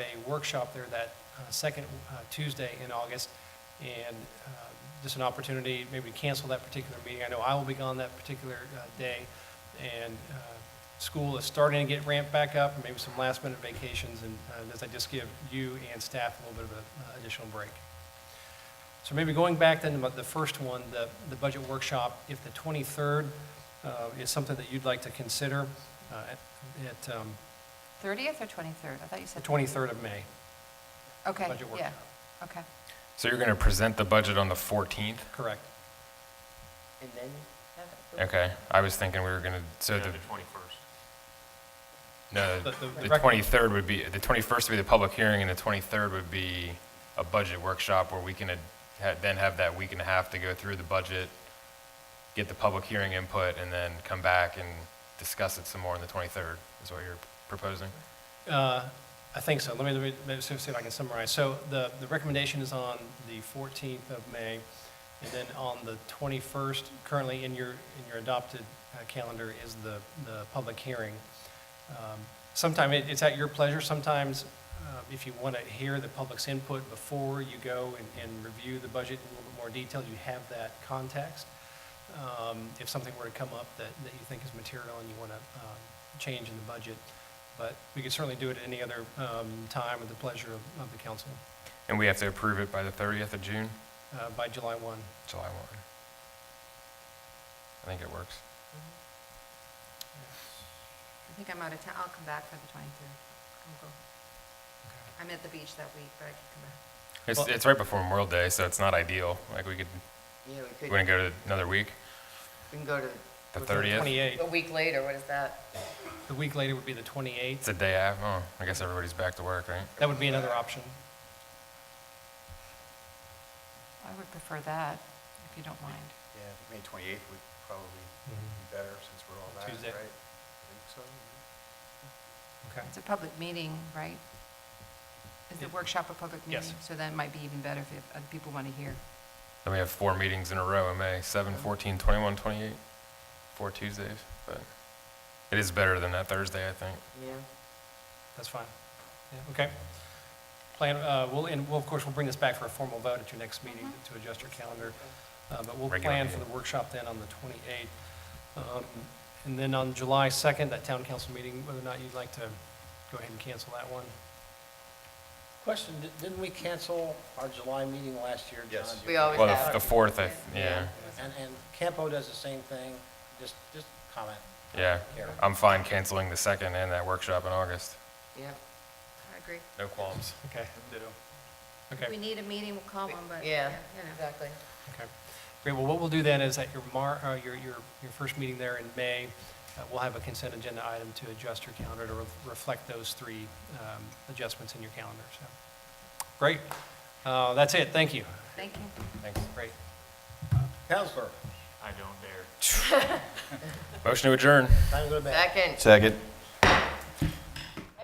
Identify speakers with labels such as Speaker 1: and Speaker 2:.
Speaker 1: a workshop there that uh, second uh, Tuesday in August, and uh, just an opportunity maybe to cancel that particular meeting. I know I will be gone that particular uh, day, and uh, school is starting to get ramped back up, and maybe some last-minute vacations, and uh, does that just give you and staff a little bit of an additional break? So maybe going back then to the first one, the, the budget workshop, if the 23rd uh, is something that you'd like to consider uh, at at, um,
Speaker 2: 30th or 23rd? I thought you
Speaker 1: the
Speaker 2: said.
Speaker 1: 23rd of May.
Speaker 2: Okay,
Speaker 1: budget
Speaker 2: yeah,
Speaker 1: workshop.
Speaker 2: okay.
Speaker 3: So you're going to present the budget on the 14th?
Speaker 1: Correct.
Speaker 4: And then have it approved.
Speaker 3: Okay, I was thinking we were going to, so the,
Speaker 5: twenty-first.
Speaker 3: no,
Speaker 1: The- the- the
Speaker 3: the
Speaker 1: rec-
Speaker 3: 23rd would be, the 21st would be the public hearing, and the 23rd would be a budget workshop where we can ad- ha- then have that week and a half to go through the budget, get the public hearing input, and then come back and discuss it some more on the 23rd, is what you're proposing?
Speaker 1: Uh, I think so. Let me, let me, let me see if I can summarize. So the, the recommendation is on the 14th of May, and then on the 21st, currently in your, in your adopted uh, calendar is the, the public hearing. Um, Sometime, it- it's at your pleasure, sometimes uh, if you want to hear the public's input before you go and, and review the budget in a little bit more detail, you have that context. Um, If something were to come up that, that you think is material and you want to change in the budget, but we could certainly do it at any other um, time with the pleasure of, of the council
Speaker 3: And we have to approve it by the 30th of June,
Speaker 1: uh, by July 1.
Speaker 3: July 1. I think it works.
Speaker 2: I think I'm out of town, I'll come back for the 23rd. I'm at the beach that week, but I can come back.
Speaker 3: It's,
Speaker 1: Well-
Speaker 3: it's right before Memorial Day, so it's not ideal. Like, we could,
Speaker 4: Yeah, we
Speaker 3: we
Speaker 4: could,
Speaker 3: want to go to another week,
Speaker 4: we can go to.
Speaker 3: the
Speaker 4: we're gonna-
Speaker 3: 30th?
Speaker 1: 28,
Speaker 4: A week later, what is that?
Speaker 1: the week later would be the 28th.
Speaker 3: It's a day after. Oh, I guess everybody's back to work, right?
Speaker 1: That would be another option.
Speaker 2: I would prefer that, if you don't mind.
Speaker 6: Yeah, May 28th would probably
Speaker 3: Mm-hmm.
Speaker 6: be better since we're all back, right?
Speaker 1: Tuesday.
Speaker 6: I think so.
Speaker 1: Okay.
Speaker 2: It's a public meeting, right? Is the workshop a public meeting?
Speaker 1: Yes.
Speaker 2: So that might be even better if other people want to hear.
Speaker 3: Then we have four meetings in a row in May 7, 14, 21, 28. Four Tuesdays. But it is better than that Thursday, I think.
Speaker 4: Yeah.
Speaker 1: That's fine. Yeah, okay. Plan, uh, we'll, and we'll, of course, we'll bring this back for a formal vote at your next meeting to adjust your calendar. Uh, but we'll
Speaker 3: Regular
Speaker 1: plan for the
Speaker 3: meeting.
Speaker 1: workshop then on the 28th. Um, and then on July 2nd, that town council meeting, whether or not you'd like to go ahead and cancel that one.
Speaker 7: Question, di- didn't we cancel our July meeting last year? John?
Speaker 6: Yes.
Speaker 4: We always
Speaker 3: Well,
Speaker 4: have-
Speaker 3: the, the fourth, I, th- yeah.
Speaker 7: And, and Campo does the same thing, just, just comment.
Speaker 3: Yeah.
Speaker 7: Here.
Speaker 3: I'm fine canceling the second and that workshop in August.
Speaker 4: Yeah.
Speaker 2: I agree.
Speaker 3: No qualms.
Speaker 1: Okay, okay.
Speaker 2: If we need a meeting, we'll call one, but, you
Speaker 4: Yeah,
Speaker 2: know.
Speaker 4: exactly.
Speaker 1: Okay. Great, well, what we'll do then is at your mar, uh, your, your, your first meeting there in May, uh, we'll have a consent agenda item to adjust your calendar to re- reflect those three, um, adjustments in your calendar, so. Great. Uh, that's it, thank you.
Speaker 2: Thank you.
Speaker 3: Thanks.
Speaker 1: Great.
Speaker 7: Counselor,
Speaker 5: I don't dare.
Speaker 3: Motion to adjourn.
Speaker 7: time to go to bed.
Speaker 4: Second.
Speaker 6: Second.